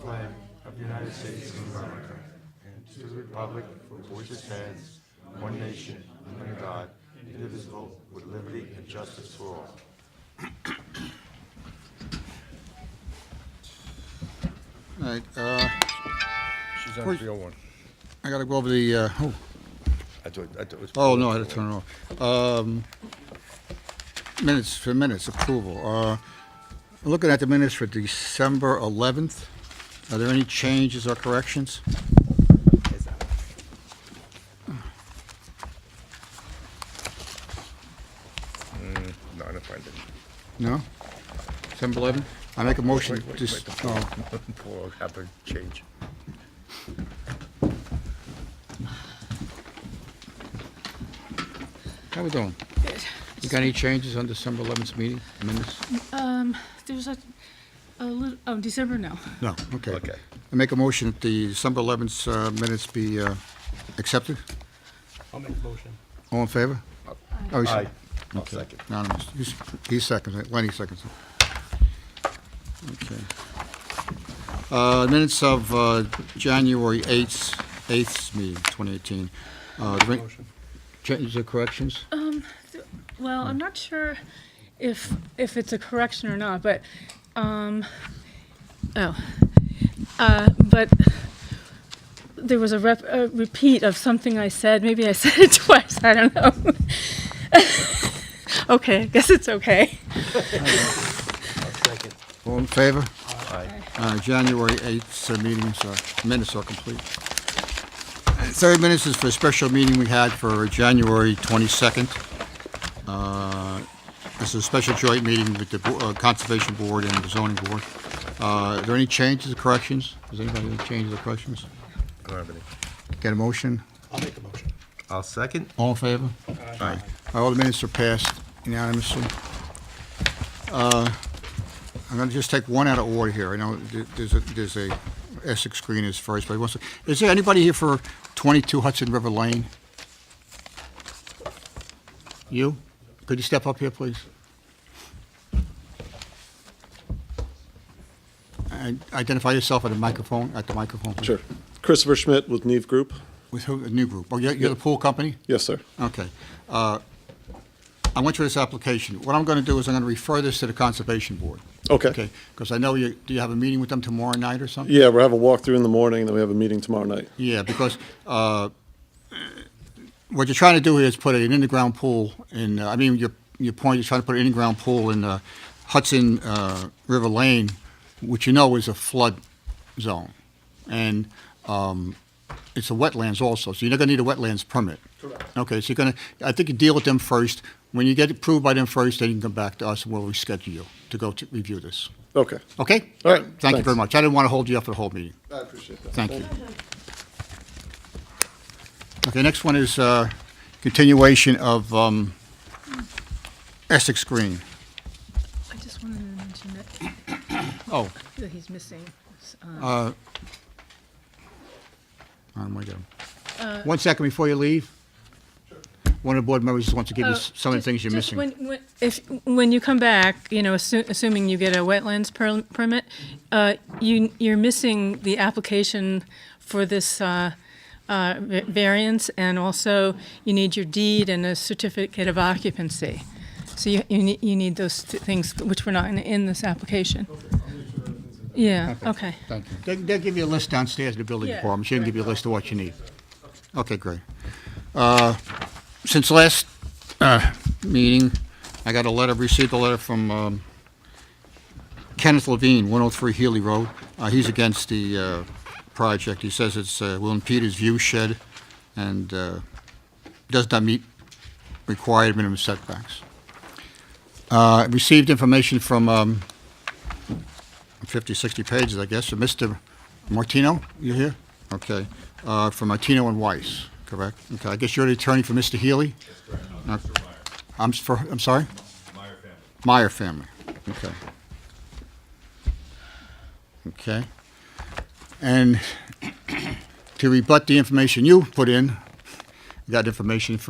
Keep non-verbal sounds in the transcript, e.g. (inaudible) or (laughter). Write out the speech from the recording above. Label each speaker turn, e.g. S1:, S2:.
S1: flag of the United States of America and to the republic for which it stands, one nation, under God, indivisible, with liberty and justice for all.
S2: All right, uh,
S1: She's on
S2: Where's-
S1: real one.
S2: I gotta go over the, uh, oh,
S1: I thought, I thought it was.
S2: oh, no, I had to turn it off. Um, Minutes for minutes approval. Uh, Looking at the minutes for December 11th, are there any changes or corrections?
S1: No, I didn't find it.
S2: No? December 11th? I make a motion,
S1: Wait, wait,
S2: just,
S1: wait.
S2: oh,
S1: (laughs) Poor, happened, change.
S2: how we doing? You got any changes on December 11th 's meeting minutes?
S3: Um, there's a, a little, oh, December, no.
S2: No, okay.
S1: Okay.
S2: I make a motion that the December 11th 's, uh, minutes be uh, accepted?
S4: I'll make the motion.
S2: All in favor? Oh, he's-
S1: Aye. I'll second.
S2: Anonymous. He's- He seconds it, Lenny seconds it. Okay. Uh, Minutes of uh, January 8th, 8th meeting, 2018. Uh, the re-
S4: Motion.
S2: Changes or corrections?
S3: Um, Well, I'm not sure if, if it's a correction or not, but, um, oh. Uh, but there was a rep, a repeat of something I said, maybe I (laughs) said it twice, I don't know. (laughs) Okay, I guess it's okay.
S4: Second.
S2: All in favor?
S1: Aye.
S2: Uh, January 8th 's meetings, uh, minutes are complete. Third minutes is for a special meeting we had for January 22nd. Uh, This is a special joint meeting with the Bo- uh, Conservation Board and the Zoning Board. Uh, Are there any changes or corrections? Does anybody have any changes or corrections?
S1: I don't have any.
S2: Get a motion?
S4: I'll make the motion.
S1: I'll second.
S2: All in favor?
S1: Aye.
S2: All the minutes are passed unanimously. Uh, I'm going to just take one out of order here. I know th- there's a, there's a Essex Green is first, but he wants to, is there anybody here for 22 Hudson River Lane? You? Could you step up here, please? And Identify yourself at the microphone, at the microphone. please.
S5: Sure. Christopher Schmidt with Neve Group.
S2: With who, the new group? Oh, you're you're the pool company?
S5: Yes, sir.
S2: Okay. Uh, I went through this application. What I'm going to do is I'm going to refer this to the Conservation Board.
S5: Okay.
S2: Okay? Because I know you, do you have a meeting with them tomorrow night or something?
S5: Yeah, we're having a walkthrough in the morning, and then we have a meeting tomorrow night.
S2: Yeah, because uh, what you're trying to do here is put an in-the-ground pool in, uh, I mean, your, your point, you're trying to put an in-the-ground pool in uh, Hudson uh, River Lane, which you know is a flood zone. And um, it's a wetlands also, so you're not going to need a wetlands permit. Correct. Okay, so you're going to, I think you deal with them first. When you get approved by them first, then you can come back to us and we'll reschedule you to go to review this.
S5: Okay.
S2: Okay?
S5: All right,
S2: Thank you very
S5: thanks.
S2: much. I didn't want to hold you up for the whole meeting.
S5: I appreciate that.
S2: Thank you. Okay, next one is uh, continuation of um, Essex Green.
S3: I just wanted to mention that,
S2: Oh.
S3: that he's missing, uh,
S2: uh, oh my God.
S3: Uh,
S2: One second before you leave. One of the board members just wants to give you
S3: Oh,
S2: s- some of the
S3: just-
S2: things you're
S3: just
S2: missing.
S3: when- when- If, when you come back, you know, assu- assuming you get a wetlands per- permit, uh, you, you're missing the application for this uh, uh, va- variance, and also you need your deed and a certificate of occupancy. So you, you need, you need those th- things which were not in, in this application. Yeah, okay.
S2: Thank you. They- They'll give you a list downstairs in the building
S3: Yeah.
S2: department. She'll give you a list of what you need. Okay, great. Uh, Since last uh, meeting, I got a letter, received a letter from um, Kenneth Levine, 103 Healy Road. Uh, He's against the uh, project. He says it's, uh, will impede his view shed and uh, does not meet required minimum setbacks. Uh, Received information from um, 50, 60 pages, I guess, of Mr. Martino, you here? Okay, Uh, from Martino and Weiss, correct? Okay, I guess you're the attorney for Mr. Healy? That's correct, I'm for, I'm sorry? Meyer family. Meyer family, okay. Okay. (clears throat) And to rebut the information you put in, got information from.